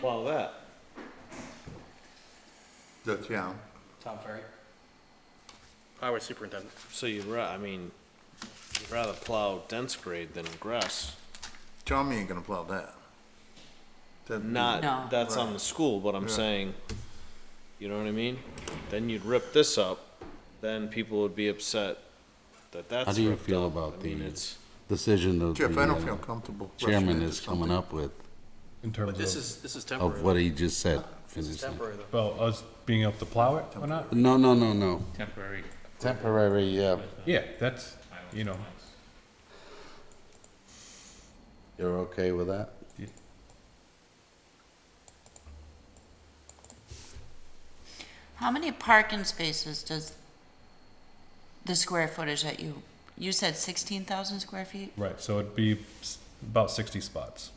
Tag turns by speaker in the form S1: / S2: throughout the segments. S1: plow that?
S2: the town.
S3: Tom Ferry. Highway Superintendent.
S4: So you'd ra, I mean, you'd rather plow dense grade than grass.
S2: Tommy ain't gonna plow that. That'd be-
S5: No.
S4: Not, that's on the school, but I'm saying, you know what I mean? Then you'd rip this up, then people would be upset that that's ripped up.
S6: How do you feel
S4: I
S6: about
S4: mean,
S6: the
S4: it's-
S6: decision that
S2: Jeff, I don't
S6: the
S2: feel
S6: uh,
S2: comfortable. rushing
S6: chairman
S2: into
S6: is coming up with,
S7: In
S3: But
S7: terms
S3: this
S7: of,
S3: is, this is
S6: of
S3: temporary.
S6: what he just said?
S3: This is
S6: Finish it.
S3: temporary though.
S7: well, us being able to plow it or not?
S6: No, no, no, no.
S8: temporary.
S6: Temporary, uh,
S7: Yeah, that's, you know,
S6: you're okay with that?
S5: How many parking spaces does the square footage that you, you said sixteen thousand square feet?
S7: right, so it'd be s- about sixty spots.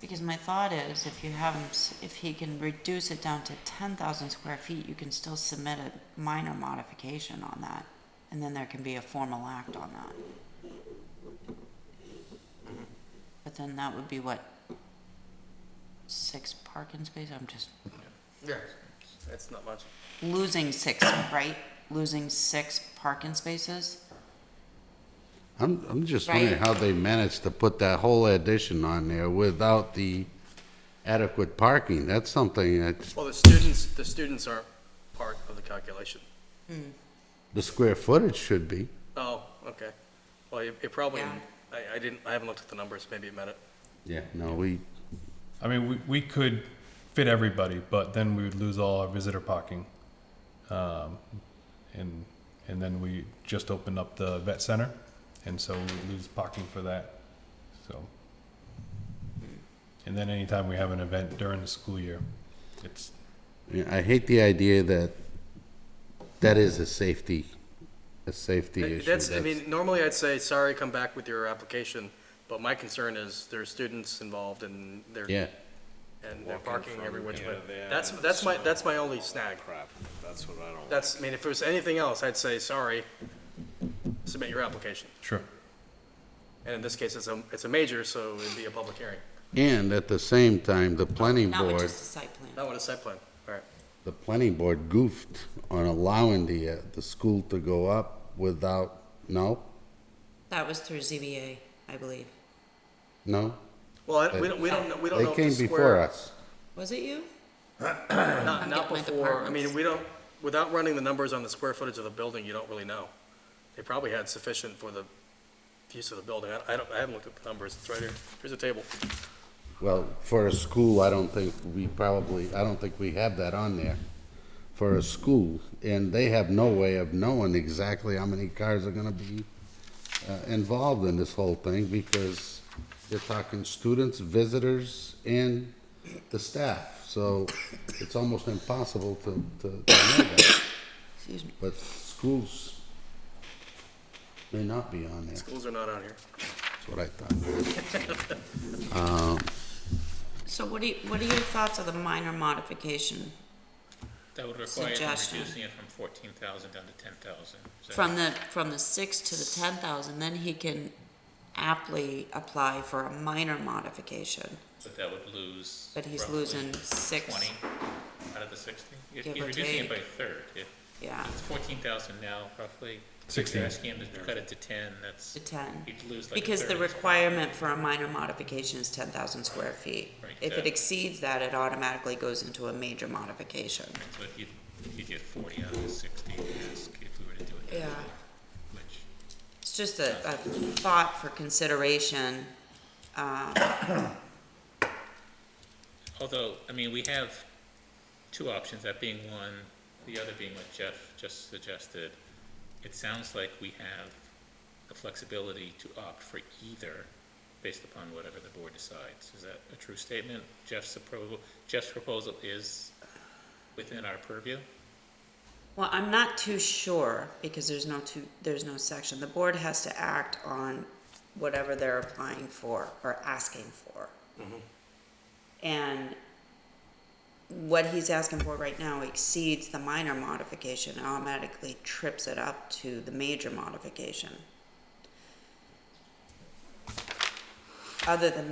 S5: Because my thought is, if you have him, s- if he can reduce it down to ten thousand square feet, you can still submit a minor modification on that. And then there can be a formal act on that. But then that would be what? Six parking spaces, I'm just
S3: Yeah, it's not much.
S5: losing six, right? Losing six parking spaces?
S6: I'm, I'm just
S5: Right.
S6: wondering how they managed to put that whole addition on there without the adequate parking. That's something that,
S3: Well, the students, the students aren't part of the calculation.
S6: the square footage should be.
S3: Oh, okay. Well, you, you probably,
S5: Yeah.
S3: I, I didn't, I haven't looked at the numbers, maybe it meant it.
S6: Yeah. No, we,
S7: I mean, we, we could fit everybody, but then we would lose all our visitor parking. Um, and, and then we just opened up the vet center, and so we lose parking for that, so. And then anytime we have an event during the school year, it's,
S6: Yeah, I hate the idea that that is a safety, a safety
S3: Hey,
S6: issue.
S3: That's, I mean, normally I'd say, sorry, come back with your application, but my concern is there are students involved and they're,
S6: Yeah,
S3: and they're
S4: Walking
S3: parking
S4: from
S3: every which
S4: here
S3: way.
S4: to there
S3: That's,
S4: and
S3: that's my,
S4: so-
S3: that's my only snag.
S4: Crap, that's what I don't,
S3: That's, I mean, if it was anything else, I'd say, sorry, submit your application.
S7: sure.
S3: And in this case, it's a, it's a major, so it'd be a public hearing.
S6: and at the same time, the planning
S5: Not with
S6: board,
S5: just the site plan.
S3: Not with a site plan, all right.
S6: the planning board goofed on allowing the, uh, the school to go up without, no,
S5: That was through ZBA, I believe.
S6: no?
S3: Well, I- we don't, we don't, know- we don't know
S6: They
S3: if the
S6: came before
S3: square,
S6: us.
S5: Was it you?
S3: not, not
S5: getting my
S3: before, I mean,
S5: departments.
S3: we don't, without running the numbers on the square footage of the building, you don't really know. They probably had sufficient for the use of the building. I, I don't, I haven't looked at the numbers. It's right here. Here's a table.
S6: Well, for a school, I don't think we probably, I don't think we have that on there for a school. And they have no way of knowing exactly how many cars are gonna be uh, involved in this whole thing because you're talking students, visitors, and the staff. So it's almost impossible to, to to know that.
S5: Excuse me.
S6: But schools may not be on there.
S3: Schools are not on here.
S6: That's what I thought.
S5: So what do you, what are your thoughts of the minor modification
S8: That would require them
S5: Suggestion.
S8: reducing it from fourteen thousand down to ten thousand.
S5: from the, from the six to the ten thousand, then he can aptly apply for a minor modification.
S8: But that would lose.
S5: But he's
S8: roughly
S5: losing six.
S8: Twenty out of the sixty? You're
S5: Give
S8: you're
S5: or
S8: reducing it by
S5: take.
S8: a third. If
S5: Yeah,
S8: it's fourteen thousand now, roughly. If
S7: 16.
S8: you're asking him to cut it to ten, that's.
S5: to ten.
S8: You'd lose like a
S5: Because the
S8: third.
S5: requirement for a minor modification is ten thousand square feet.
S8: Right,
S5: If it
S8: that-
S5: exceeds that, it automatically goes into a major modification.
S8: So if you, you get forty out of the sixty, ask if we were to do it. that
S5: Yeah.
S8: way, Which.
S5: It's just a, a thought for consideration. Um,
S8: Although, I mean, we have two options, that being one, the other being what Jeff just suggested. It sounds like we have the flexibility to opt for either based upon whatever the board decides. Is that a true statement? Jeff's approval, Jeff's proposal is within our purview?
S5: Well, I'm not too sure because there's no two, there's no section. The board has to act on whatever they're applying for or asking for. And what he's asking for right now exceeds the minor modification, and automatically trips it up to the major modification. Other than